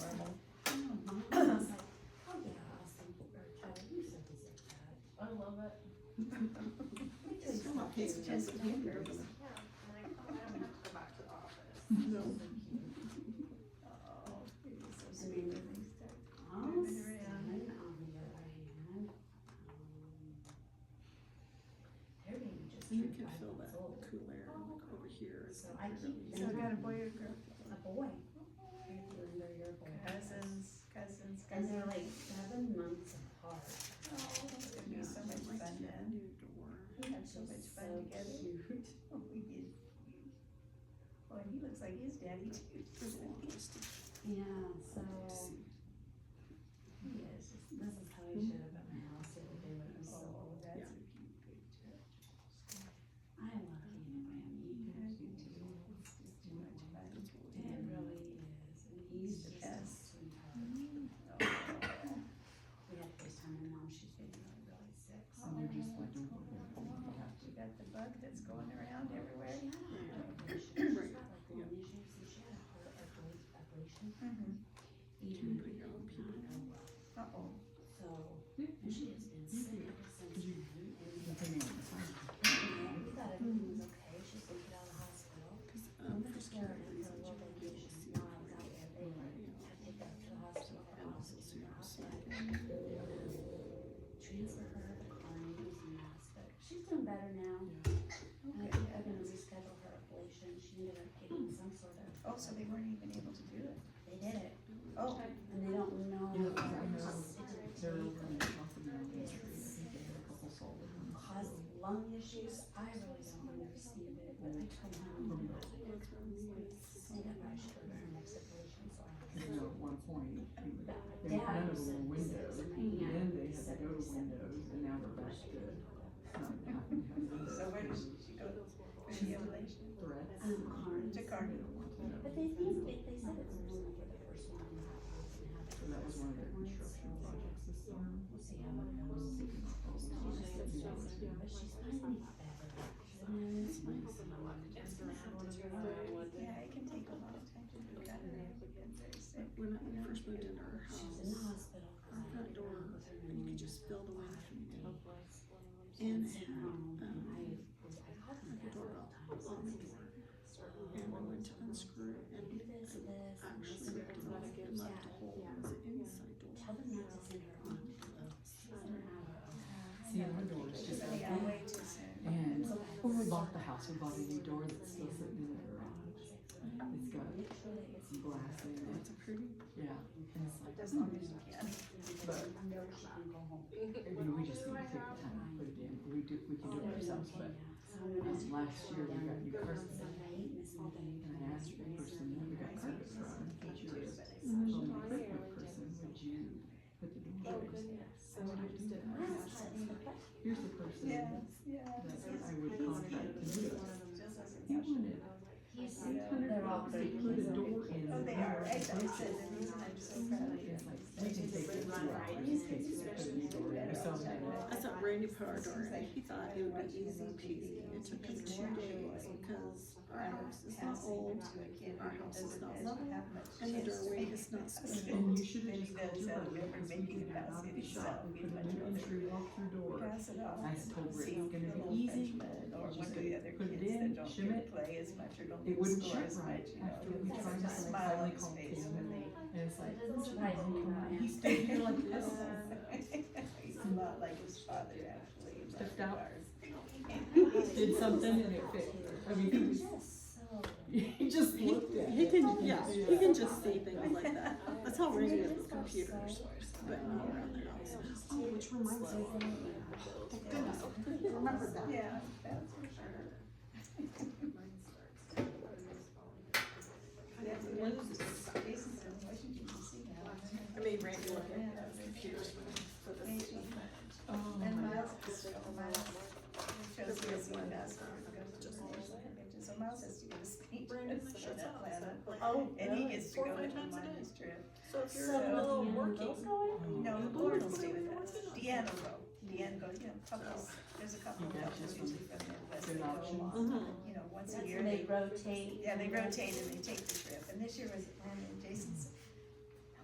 It's Just want his just test papers. Yeah, I'm like, oh, I don't have to go back to the office. No. Oh, I mean, Austin, on the other hand, um, they're being just And you turned can five feel months that old. cool air like over here. is So like I a keep really- So I got a boy or girl? A boy. Linda, you're a boy. Cousins, cousins, And they're cousins. like seven months apart. Oh, it's gonna Yeah, be so I'd much like to fun get a then. new door. We had so She's much so fun together. Oh, cute. We did. Boy, he looks like his daddy too. There's a long list of Yeah, so to see. Yes. this is how Hmm? he showed up at my house the other day when it was so Oh, old. that's Yeah. a cute picture. I love Enneagram I Eaters. do too. It's just too much fun. That's what we It do. really is, and he's He's the just a best. sweetheart. Oh. We had FaceTime my mom, she's been really, really sick, so. Oh, We got the bug that's going around everywhere. She had a heart ablation, she's got like lung issues, and she had a heart abla- ablation, Mhm. even if it did not go well. Uh-oh. So, Mm-hmm. and she has been sick ever since then, and we thought everything was okay, she's been put out of the hospital. Cause, um, And for the security, security her reasons, you little don't really vacation, see now it it's out for you. there, they had to take her to the hospital, her And office also was so in the you're hospital. sick. transfer her to Carnegie's mass, but she's doing better now. And I think they're gonna reschedule her ablation, she ended up getting some sort of. Oh, so they weren't even able to do it. They did it, Oh, and they don't know. Yeah, if I know. it's- it's They're over in the top of the It's tree. I think they had a couple solid ones. caused lung issues, I really don't understand it, but I told my mom. I That's what I'm saying. said that I should go to the next ablation, so I. You know, at one point, they were- But they were Dad kind of said a window, six, and yeah, then they had to seven, go to seven, windows, and now they're back to not having to have windows. so where does she go? For the ablation? Threats. Um, Carnes. To They Carnes. don't want to know. But they think, they, they said it's really for the first one. and that one can have it. So that was one of their construction projects this summer. We'll see how it goes. They can She's probably just just so do it. stressed, but she's finally better. She's in this place. She's gonna have to turn around. Yeah, it can take a long time to do that. And very sick. When I first moved into our She was in the house, hospital. 'cause our I had front door, gone with her and you pneumonia could just feel the wind for from a day. the And it Sent had, home, and um, um, I was, I called my dad several times. on the door. And I went to unscrew it "Oh, Do and this, this. and actually this, ripped it and off this. and left a Yeah. hole in the inside door. Tell them not to send her on. She's an hour. See, our door is just like Yeah, that. way too soon. And when we bought the house, we bought a new door that's still sitting in the garage. Mm-hmm. It's got Make sure that it's. some glass in it, It's a pretty, yeah, and it's like, As long as you can. But- I know she can go home. you know, we just need to take the time and put it in, we do, we can do it ourselves, but Someone last year we got new carpet. Sunday, Miss Monday. And I asked the person that we got carpet from, if she was a home equipment person, would you put the Oh, door in? I would do that. Last time, but Here's the person Yes, that yeah. I would contract to do it. He wanted he's, eight hundred they're all dollars to pretty. put a door in. Oh, they are. I said, I'm so proud of you. It's like, we can take it two hours, it takes to put a new door in, so I'm like, I thought Randy put our door in, he thought it would be easy peasy, it took us two days because our house is not old, our house is not level, and the doorway is not square. And you should have Maybe just those that called your buddy live and in said, you Macon have House out of the itself shop, we would put much an rather entry walk-through door. Pass it off. I told Rick See it's gonna be little easy, Frenchman Or Just one of the other put it kids in, that don't shim get it. play as much or don't It get wouldn't score shut as right much, you know. after we That's tried a to, like, smile on finally his called face. Tim, and and it's like, It doesn't surprise me when I he ask. stood here like this. He's a lot like his father, actually. in that Stepped out. regard. He did something and it fit, I mean, he was, Just so. he just looked at He it. Oh, can, yeah, he can just see things like that, that's how Randy is with computers, but not around their house. Oh, which reminds me, thank goodness, I couldn't remember that. Yeah, that's for sure. That's one of the Jason's in Washington DC now. I made Randy look at the computers for the Maybe. Oh, And my- Miles, just a Miles. Shows me his one mask. So Miles has to go to speech. in Atlanta. Oh, And he gets to Four go or five with him times a on day. his trip. So if you're uh, So- in the middle of working, No, oh, Lauren will stay with us. Deanna will. Deanna goes, you know, couples, there's a couple of You got couples this usually from Midwest. Good that go option. Mm-hmm. along, You know, once That's a when year. they rotate. Yeah, they rotate and they take the trip. And this year was Atlanta and Jason's